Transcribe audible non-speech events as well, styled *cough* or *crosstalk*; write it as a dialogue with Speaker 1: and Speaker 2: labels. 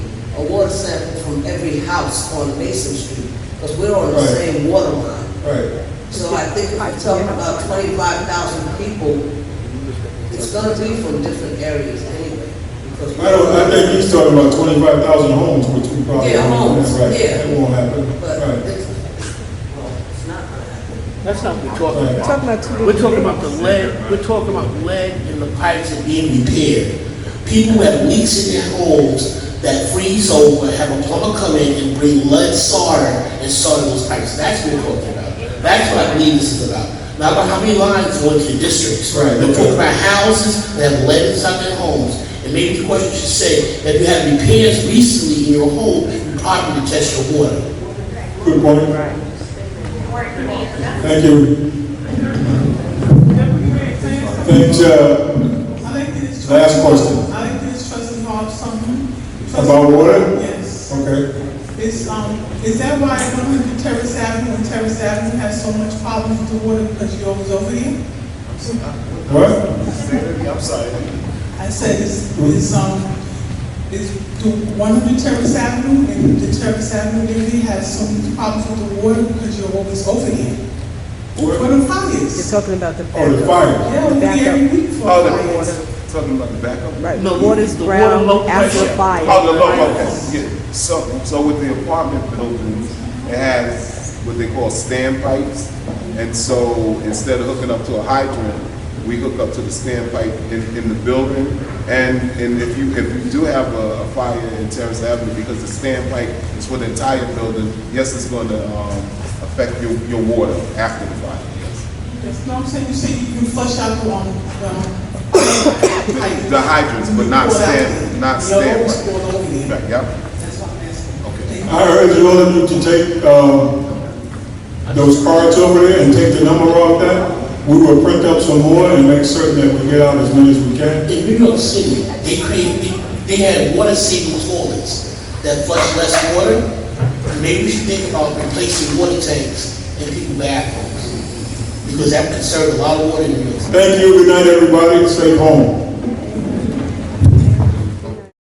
Speaker 1: a water sample from every house on Mason Street, because we're on the
Speaker 2: Right.
Speaker 1: same water line.
Speaker 2: Right.
Speaker 1: So I think we're talking about twenty-five thousand people. It's gonna be from different areas anyway, because.
Speaker 2: I don't, I think he's talking about twenty-five thousand homes, which we probably.
Speaker 1: Yeah, homes,
Speaker 2: That's right.
Speaker 1: yeah.
Speaker 2: That won't happen,
Speaker 1: But
Speaker 2: right.
Speaker 1: it's, well, it's not gonna happen.
Speaker 3: That's not what we're talking
Speaker 2: Right.
Speaker 3: about.
Speaker 4: Talking about two
Speaker 3: We're talking
Speaker 4: different
Speaker 3: about the lead, we're talking about lead in the
Speaker 5: pipes are being repaired. People have leaks in their homes that freeze over, have a plumber come in and bring lead solder and solder those pipes. That's what we're talking about. That's what I believe this is about. Not about how many lines go into your districts.
Speaker 2: Right.
Speaker 5: We're talking about houses that have lead inside their homes. And maybe the question should say, that you had repairs recently in your home, you probably test your water.
Speaker 2: Good point. Thank you. Thanks, uh,
Speaker 6: I think it is.
Speaker 2: Last question.
Speaker 6: I think it is President Hall, something.
Speaker 2: about water?
Speaker 6: Yes.
Speaker 2: Okay,
Speaker 6: It's, um, is that why one hundred Terrace Avenue and Terrace Avenue has so much problems with the water because you always over here?
Speaker 2: what?
Speaker 6: I said, is, is, um, is, do one hundred Terrace Avenue and the Terrace Avenue area has so much problems with the water because you're always over here?
Speaker 2: What?
Speaker 6: For the
Speaker 4: You're
Speaker 6: fires.
Speaker 4: talking about the
Speaker 2: Oh, the
Speaker 4: backup.
Speaker 2: fire.
Speaker 6: Yeah, we're here every week for
Speaker 7: Oh, the
Speaker 6: fires.
Speaker 7: Talking about the backup?
Speaker 4: Right,
Speaker 3: No,
Speaker 4: the water's
Speaker 3: the water
Speaker 4: brown
Speaker 3: low
Speaker 4: after
Speaker 3: pressure.
Speaker 4: fire.
Speaker 7: Oh, the low, okay, yeah. So, so with the apartment buildings, it has what they call standpipes. And so instead of hooking up to a hydrant, we hook up to the standpipe in, in the building. And, and if you, if you do have a, a fire in Terrace Avenue, because the standpipe is for the entire building, yes, it's going to, um, affect your, your water after the fire, yes.
Speaker 6: Yes, no, I'm saying, you say you flush out the, um, the. um,
Speaker 7: *coughs* The hydrants, but not
Speaker 6: You pour it out.
Speaker 7: stand- not
Speaker 6: You
Speaker 7: stand-
Speaker 6: always pour it over there.
Speaker 7: Right, Yep.
Speaker 6: That's what I'm asking.
Speaker 7: Okay.
Speaker 2: I urge all of you to take, um, those cards over there and take the number off that. We will print up some more and make certain that we get out as many as we can.
Speaker 5: In New York City, they created, they had water saving toilets that flush less water. Maybe we should think about replacing water tanks in people's bathrooms. Because that would conserve a lot of water in New York City.
Speaker 2: Thank you, good night, everybody, stay home.